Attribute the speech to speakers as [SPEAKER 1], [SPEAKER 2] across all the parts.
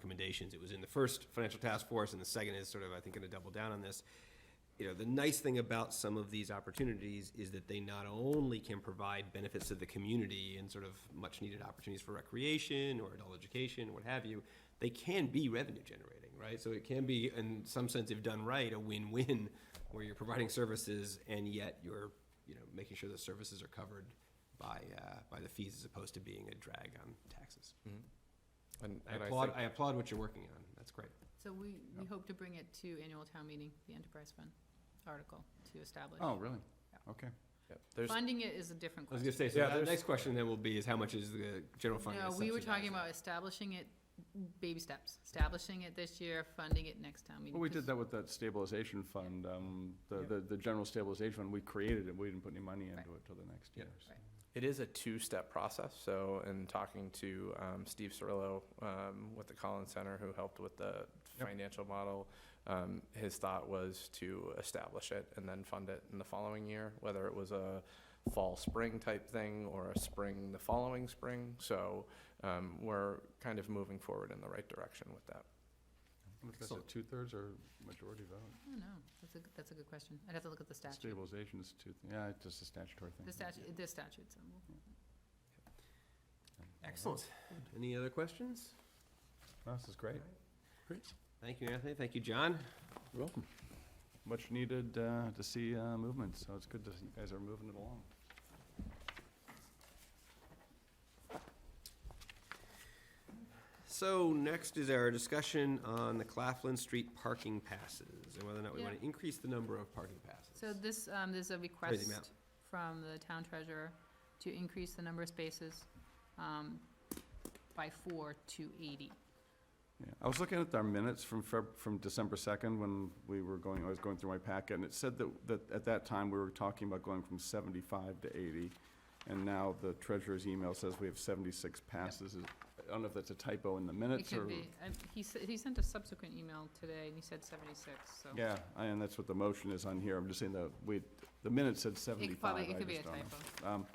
[SPEAKER 1] recommendations. It was in the first financial task force, and the second is sort of, I think, going to double down on this. You know, the nice thing about some of these opportunities is that they not only can provide benefits to the community and sort of much-needed opportunities for recreation or adult education, what have you, they can be revenue generating, right? So it can be, in some sense, if done right, a win-win, where you're providing services and yet you're, you know, making sure the services are covered by, uh, by the fees as opposed to being a drag on taxes.
[SPEAKER 2] Mm-hmm. And,
[SPEAKER 1] I
[SPEAKER 2] and I
[SPEAKER 1] applaud,
[SPEAKER 2] think-
[SPEAKER 1] I applaud what you're working on. That's great.
[SPEAKER 3] So we, we hope to bring it to annual town meeting, the enterprise fund article to establish.
[SPEAKER 4] Oh, really?
[SPEAKER 3] Yeah.
[SPEAKER 4] Okay.
[SPEAKER 2] yeah, there's,
[SPEAKER 3] Funding it is a different
[SPEAKER 1] I was gonna
[SPEAKER 3] question.
[SPEAKER 1] say, so
[SPEAKER 2] Yeah,
[SPEAKER 1] the
[SPEAKER 2] there's-
[SPEAKER 1] next question then will be is how much is the general fund?
[SPEAKER 3] No,
[SPEAKER 1] gonna
[SPEAKER 3] we were
[SPEAKER 1] subsidize
[SPEAKER 3] talking
[SPEAKER 1] that?
[SPEAKER 3] about establishing it, baby steps, establishing it this year, funding it next town meeting.
[SPEAKER 4] Well, we did
[SPEAKER 3] 'cause-
[SPEAKER 4] that with that stabilization fund, um, the,
[SPEAKER 1] Yeah.
[SPEAKER 4] the, the general stabilization fund, we created it, we didn't put any money into
[SPEAKER 3] Right.
[SPEAKER 4] it till the next
[SPEAKER 1] Yeah.
[SPEAKER 4] year. so.
[SPEAKER 3] Right.
[SPEAKER 2] it is a two-step process, so in talking to um, Steve Cirillo um, with the Collins Center, who helped with the
[SPEAKER 4] Yep.
[SPEAKER 2] financial model, um, his thought was to establish it and then fund it in the following year, whether it was a fall, spring type thing or a spring the following spring. So um, we're kind of moving forward in the right direction with that.
[SPEAKER 4] How much was
[SPEAKER 1] Excellent.
[SPEAKER 4] it, two-thirds or majority vote?
[SPEAKER 3] I don't know, that's a, that's a good question. I'd have to look at the statute,
[SPEAKER 4] Stabilization is two, yeah, it's just a statutory thing.
[SPEAKER 3] the statute, the statute, so we'll-
[SPEAKER 1] Excellent. Any other questions?
[SPEAKER 4] No, This is great.
[SPEAKER 1] Thank you, Anthony. Thank you, John.
[SPEAKER 4] You're welcome. Much needed, uh, to see, uh, movement, so it's good to, see you guys are moving it along.
[SPEAKER 1] So next is our discussion on the Claflin Street parking passes and whether or not we
[SPEAKER 3] Yeah.
[SPEAKER 1] want to increase the number of parking passes.
[SPEAKER 3] So this, um, there's a
[SPEAKER 1] Crazy amount.
[SPEAKER 3] request from the town treasurer to increase the number of spaces, um, by four to eighty.
[SPEAKER 4] Yeah, I was looking at our minutes from Feb, from December second, when we were going, I was going through my packet, and it said that, that at that time, we were talking about going from seventy-five to eighty, and now the treasurer's email says we have seventy-six passes. Is- I don't know if that's a typo in the
[SPEAKER 3] It
[SPEAKER 4] minutes or.
[SPEAKER 3] could be, and he said, he sent a subsequent email today and he said seventy-six, so.
[SPEAKER 4] Yeah, and that's what the motion is on here, I'm just saying that we, the minutes said
[SPEAKER 3] It could
[SPEAKER 4] seventy-five,
[SPEAKER 3] probably, it
[SPEAKER 4] I
[SPEAKER 3] could be a
[SPEAKER 4] just don't know.
[SPEAKER 3] typo.
[SPEAKER 4] Um,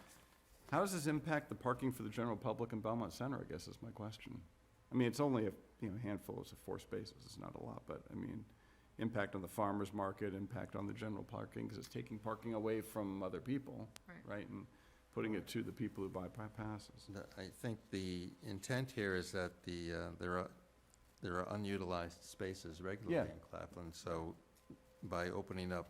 [SPEAKER 4] How does this impact the parking for the general public in Belmont Center, I guess is my question? I mean, it's only a, you know, handful, it's a four spaces, it's not a lot, but I mean, impact on the farmer's market, impact on the general parking, because it's taking parking away from other people,
[SPEAKER 3] Right.
[SPEAKER 4] right? And putting it to the people who buy pa- passes.
[SPEAKER 5] The- I think the intent here is that the, uh, there are, there are unutilized spaces regularly
[SPEAKER 4] Yeah.
[SPEAKER 5] in Claflin, so by opening up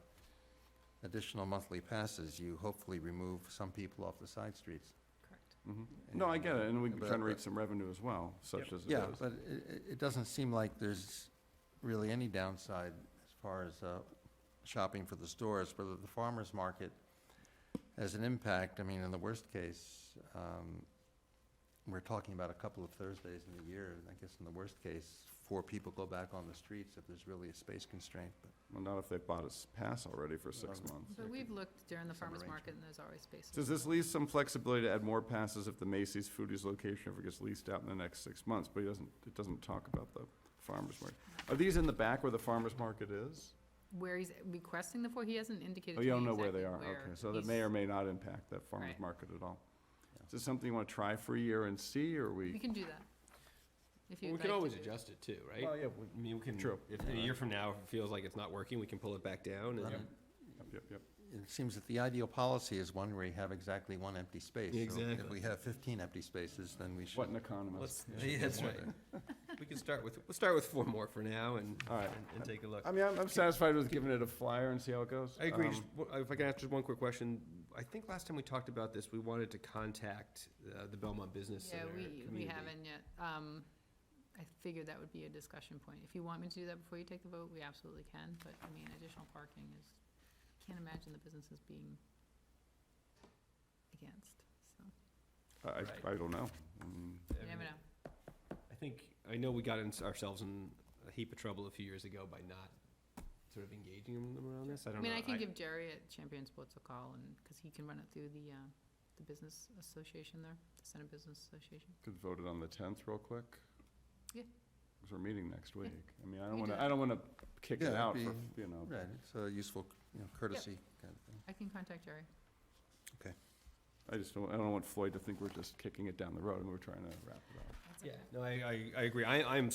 [SPEAKER 5] additional monthly passes, you hopefully remove some people off the side streets.
[SPEAKER 3] Correct.
[SPEAKER 4] Mhm. No, I get it, and we can
[SPEAKER 5] But-
[SPEAKER 4] generate some revenue as well, such as it
[SPEAKER 5] Yeah,
[SPEAKER 4] is.
[SPEAKER 5] but it, it doesn't seem like there's really any downside as far as uh, shopping for the stores, whether the farmer's market has an impact. I mean, in the worst case, um, we're talking about a couple of Thursdays in the year. and I guess in the worst case, four people go back on the streets if there's really a space constraint, but.
[SPEAKER 4] Well, not if they bought a pass already for six
[SPEAKER 5] Well,
[SPEAKER 4] months.
[SPEAKER 3] But
[SPEAKER 5] There
[SPEAKER 3] we've
[SPEAKER 5] could-
[SPEAKER 3] looked during the
[SPEAKER 5] some
[SPEAKER 3] farmer's market
[SPEAKER 5] arrangement.
[SPEAKER 3] and there's always spaces.
[SPEAKER 4] Does this leave some flexibility to add more passes if the Macy's Foodies location ever gets leased out in the next six months? But it doesn't, it doesn't talk about the farmer's market. Are these in the back where the farmer's market is?
[SPEAKER 3] Where he's requesting the four, he hasn't indicated to
[SPEAKER 4] Oh,
[SPEAKER 3] me
[SPEAKER 4] you don't know where
[SPEAKER 3] exactly
[SPEAKER 4] they are, okay. So that may
[SPEAKER 3] he's-
[SPEAKER 4] or may not impact that farmer's
[SPEAKER 3] Right.
[SPEAKER 4] market at all.
[SPEAKER 5] Yeah.
[SPEAKER 4] Is this something you want to try for a year and see, or
[SPEAKER 3] We
[SPEAKER 4] we?
[SPEAKER 3] can do that. If
[SPEAKER 1] Well,
[SPEAKER 3] you'd
[SPEAKER 1] We
[SPEAKER 3] like
[SPEAKER 1] can always
[SPEAKER 3] to do-
[SPEAKER 1] adjust it too, right?
[SPEAKER 4] Well, yeah, we-
[SPEAKER 1] I mean, we can,
[SPEAKER 4] True.
[SPEAKER 1] if a year from now, if it feels like it's not working, we can pull it back down
[SPEAKER 5] but
[SPEAKER 1] and.
[SPEAKER 5] it-
[SPEAKER 4] Yep, yep, yep.
[SPEAKER 5] It seems that the ideal policy is one where you have exactly one empty space. So
[SPEAKER 1] Exactly.
[SPEAKER 5] If we have fifteen empty spaces, then we should.
[SPEAKER 4] What an economist.
[SPEAKER 1] Let's, that's right. We can start with, we'll start with four more for now and,
[SPEAKER 4] All right.
[SPEAKER 1] and and take a look.
[SPEAKER 4] I mean, I'm, I'm satisfied with giving it a flyer and see how it goes.
[SPEAKER 1] I agree. Just
[SPEAKER 4] Um,
[SPEAKER 1] w- If I can ask just one quick question, I think last time we talked about this, we wanted to contact uh, the Belmont Business
[SPEAKER 3] Yeah,
[SPEAKER 1] Center
[SPEAKER 3] we, we
[SPEAKER 1] community.
[SPEAKER 3] haven't yet. Um, I figured that would be a discussion point. If you want me to do that before you take the vote, we absolutely can, but I mean, additional parking is, can't imagine the businesses being against, so,
[SPEAKER 4] I, I don't know. I mean,
[SPEAKER 3] you never know.
[SPEAKER 1] I think, I know we got in- ourselves in a heap of trouble a few years ago by not sort of engaging them around this. I
[SPEAKER 3] I
[SPEAKER 1] don't know.
[SPEAKER 3] mean, I can give Jerry at Champion Sports a call and, because he can run it through the, uh, the business association there, the Center Business Association.
[SPEAKER 4] Could vote it on the tenth real quick?
[SPEAKER 3] Yeah.
[SPEAKER 4] Because we're meeting next week. I mean, I
[SPEAKER 3] We
[SPEAKER 4] don't
[SPEAKER 3] do
[SPEAKER 4] wanna,
[SPEAKER 3] that.
[SPEAKER 4] I don't wanna kick it
[SPEAKER 5] Yeah,
[SPEAKER 4] out for,
[SPEAKER 5] it'd
[SPEAKER 4] you know.
[SPEAKER 5] Right, it's a useful you know, courtesy kind of thing.
[SPEAKER 3] I can contact Jerry.
[SPEAKER 4] I just don't, I don't want Floyd to think we're just kicking it down the road and we're trying to wrap it up.
[SPEAKER 3] That's
[SPEAKER 1] Yeah,
[SPEAKER 3] okay.
[SPEAKER 1] no, I, I, I agree. I, I'm